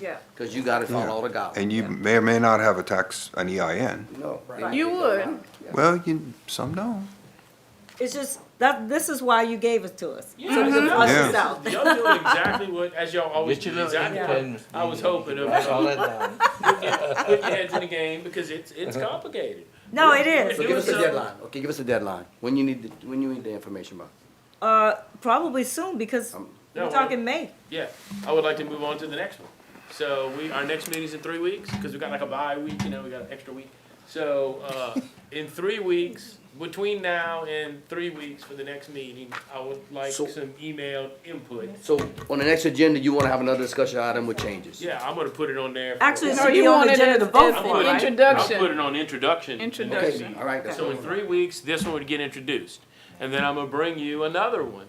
Yeah. because you gotta follow the guidelines. And you may or may not have a tax, an EIN. No. You would. Well, you, some don't. It's just, that, this is why you gave it to us. Yeah, it's a Us Yeah. is out. Mm-hmm. Y'all doing exactly what, as y'all always Get do, your little exactly pen. what I was hoping of, That's all uh, that down. putting your heads in the game, because it's, it's Uh-huh. complicated. No, it is. So It give us was a so- deadline, okay, give us a deadline, when you need, the- when you need the information by. Uh, probably soon because Um, No, we're we- talking May. Yeah, I would like to move on to the next one. So we, our next meeting's in three weeks, because we got like a bye week, you know, we got an extra week. So, uh, in three weeks, between now and three weeks for the next meeting, I would like So- some email input. So on the next agenda, you wanna have another discussion item with changes? Yeah, I'm gonna put it on there. for- Actually, it No, should you be on the wanted agenda it to vote for, as an right? I'll put it introduction. on introduction. Introduction. All right, that's. So in three weeks, this one would get introduced, and then I'm gonna bring you another one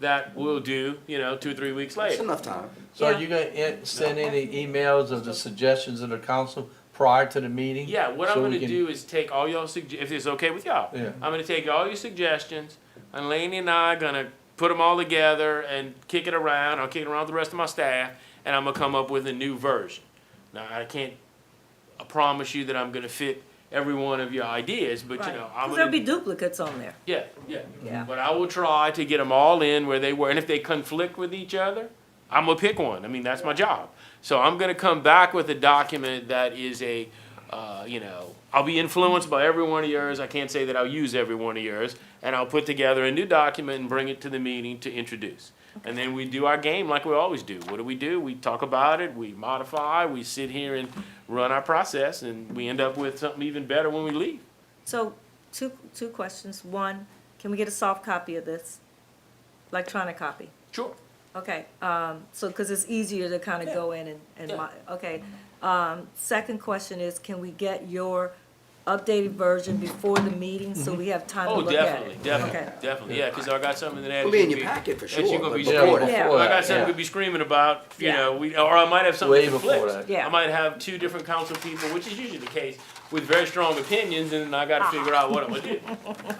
that we'll do, you know, two, three weeks That's later. enough time. So are you gonna en- send any emails of the suggestions of the council prior to the meeting? Yeah, what I'm So we gonna can- do is take all y'all sugge- if it's okay with y'all. Yeah. I'm gonna take all your suggestions, and Laney and I are gonna put them all together and kick it around, I'll kick it around with the rest of my staff, and I'm gonna come up with a new version. Now, I can't uh, promise you that I'm gonna fit every one of your ideas, but you know, I'm Because gonna there'll be duplicates on there. Yeah, yeah. Yeah. But I will try to get them all in where they were, and if they conflict with each other, I'm gonna pick one. I mean, that's my job. So I'm gonna come back with a document that is a, uh, you know, I'll be influenced by every one of yours. I can't say that I'll use every one of yours, and I'll put together a new document and bring it to the meeting to introduce. And then we do our game like we always do. What do we do? We talk about it, we modify, we sit here and run our process, and we end up with something even better when we leave. So, two, two questions. One, can we get a soft copy of this? Electronic copy? Sure. Okay, um, so, because it's easier to kind of go in and, and, Yeah. mo- okay. Um, second question is, can we get your updated version before the meeting, so we have time to Oh, look at definitely, it? definitely, Okay. definitely, yeah, because I got something that. It'll be in your packet for that you sure, gonna but be Yeah, before screaming. that. Yeah. before I got that, something yeah. to be screaming about, you Yeah. know, we, or I might have something Way that before conflicts. that. Yeah. I might have two different council people, which is usually the case, with very strong opinions, and then I Ah. gotta figure out what I'm gonna do,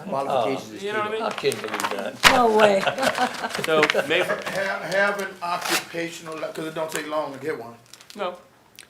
Qualifications is Uh, you know what I key. mean? I can't believe that. No way. So, maybe, Have, have an occupational, because it don't take long to get one. no,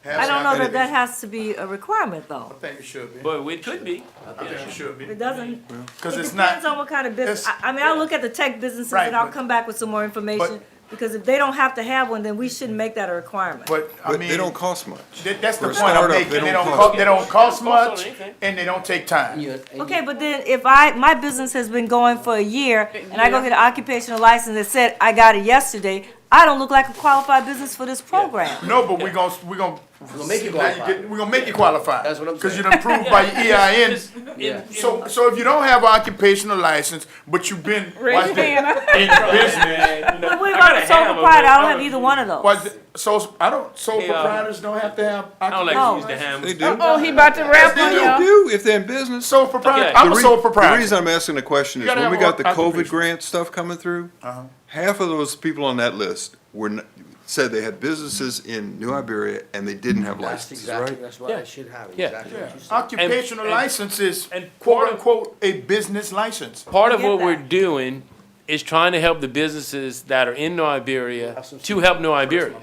I don't know that that has to be a requirement, though. I think it should be. but it could be, I think it should be. It doesn't, Because it it's depends not, on what kind of business, it's- I, I mean, I'll look at the tech businesses Right, and I'll but- come back with some more information, because if they don't have to have one, then we shouldn't make that a requirement. but I But mean, they don't cost much. that- that's the for a point I'm startup, they making. They don't don't, cost- co- they don't cost Don't cost much anything. and they don't take time. Yeah, and you- Okay, but then if I, my business has been going for a year, and I go get an occupational license that said I got it yesterday, I don't look like a qualified business for this program. No, but we're gonna, we're gonna. gonna make you now qualified. get- We're gonna make you qualified. That's what I'm Because saying. you're approved by your EIN. Yeah. So, so if you don't have an occupational license, but you've been. Raise your hand up. In business. But what about a sole proprietor? I don't have either one of Was, those. so, I don't, sole Hey, uh, proprietors don't have to have. I don't like No. to use the They ham, do. Oh, he about to wrap They on They y'all. do, if they're in business. Sole proprietor, Okay. I'm a re- sole proprietor. The reason I'm asking the question is You gotta when we have got the a- COVID occupation. grant stuff coming through, Uh-huh. half of those people on that list were, n- said they had businesses in New Iberia and they didn't have That's licenses, exactly, right? that's why Yeah. I should have it, Yeah. exactly what you said. Occupational and- license is and quote part of- unquote a business license. part of Forget what we're that. doing is trying to help the businesses that are in New Iberia to help New Iberia.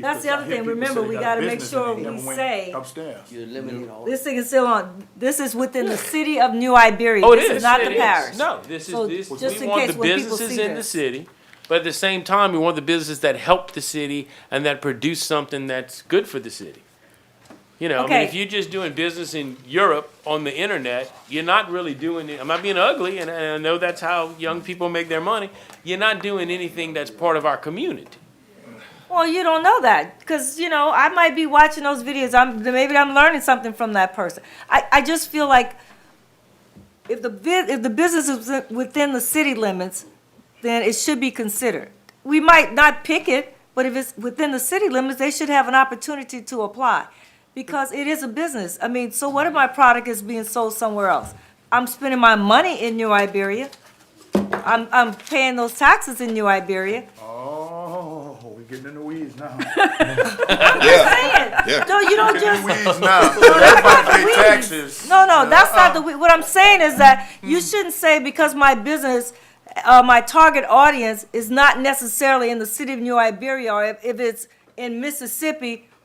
That's the other thing. Remember, we gotta make sure we say- Upstairs. You eliminate all. This thing is still on, this is within the city of New Iberia. Oh, it is. This is not It the is. parish. No, this So is, this, just we in want case the when people businesses see in the this. city, but at the same time, we want the businesses that help the city and that produce something that's good for the city. You know, I mean, Okay. if you're just doing business in Europe on the internet, you're not really doing it. I'm not being ugly, and, and I know that's how young people make their money. You're not doing anything that's part of our community. Well, you don't know that because you know I might be watching those videos. I'm maybe I'm learning something from that person. I, I just feel like if the bu- if the business is within the city limits, then it should be considered. We might not pick it, but if it's within the city limits, they should have an opportunity to apply because it is a business. I mean, so what if my product is being sold somewhere else? I'm spending my money in New Iberia. I'm I'm paying those taxes in New Iberia. Oh, we're getting in the weeds now. Yeah, Yeah. No, you don't Getting just in the weeds now. Everybody pay taxes. No, no, that's not the, what I'm saying is that you shouldn't say because my business, uh, my target audience is not necessarily in the city of New Iberia, or if, if it's in Mississippi,